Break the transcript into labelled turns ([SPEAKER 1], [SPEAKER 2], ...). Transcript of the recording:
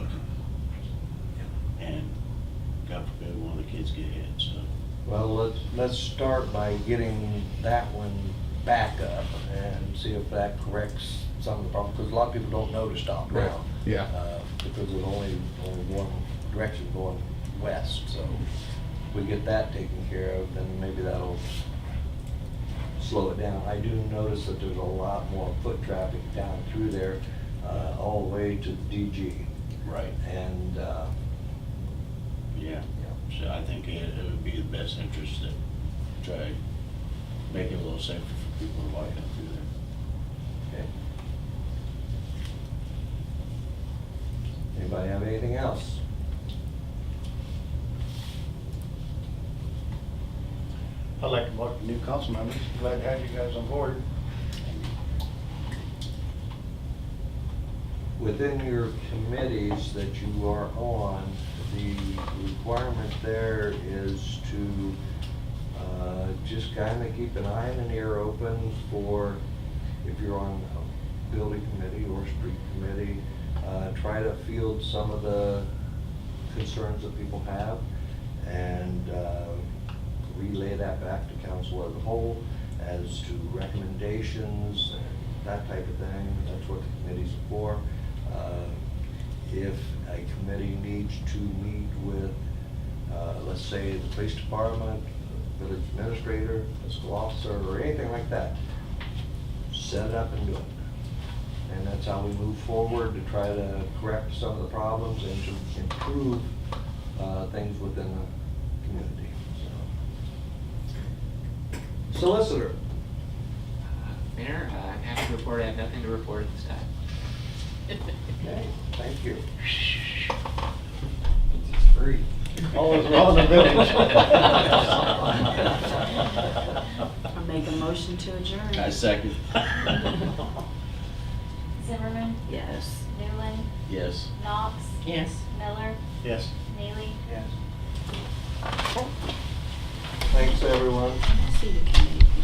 [SPEAKER 1] needs to get hit, so.
[SPEAKER 2] Well, let's, let's start by getting that one back up and see if that corrects some of the problems, because a lot of people don't know to stop
[SPEAKER 3] Right.
[SPEAKER 2] now.
[SPEAKER 3] Yeah,
[SPEAKER 2] uh, Because there's only, only one direction going west, so if we get that taken care of, then maybe that'll slow it down. I do notice that there's a lot more foot traffic down through there, uh, all the way to the DG.
[SPEAKER 1] Right.
[SPEAKER 2] And, uh,
[SPEAKER 1] Yeah,
[SPEAKER 2] you know,
[SPEAKER 1] so I think it, it would be the best interest to try, make it a little safer for people to walk up through there.
[SPEAKER 2] Okay. Anybody have anything else?
[SPEAKER 4] I'd like to welcome new council members. Glad to have you guys on board.
[SPEAKER 2] Within your committees that you are on, the requirement there is to uh, just kind of keep an eye and an ear open for, if you're on a building committee or street committee, uh, try to field some of the concerns that people have and uh, relay that back to council as a whole as to recommendations and that type of thing. That's what the committee's for. Uh, If a committee needs to meet with, uh, let's say, the police department, village administrator, fiscal officer, or anything like that, set it up and do it. And that's how we move forward to try to correct some of the problems and to improve uh, things within the community, so. Solicitor,
[SPEAKER 5] Mayor, uh, I'm happy to report I have nothing to report at this time.
[SPEAKER 2] okay, thank you.
[SPEAKER 4] All in all in the village.
[SPEAKER 5] I
[SPEAKER 6] I make a motion to adjourn.
[SPEAKER 1] I second.
[SPEAKER 7] Zimmerman,
[SPEAKER 6] Yes.
[SPEAKER 7] Newland,
[SPEAKER 1] Yes.
[SPEAKER 7] Knox,
[SPEAKER 6] Yes.
[SPEAKER 7] Miller,
[SPEAKER 4] Yes.
[SPEAKER 7] Neely.
[SPEAKER 2] Thanks, everyone.
[SPEAKER 6] I see you, Kenny.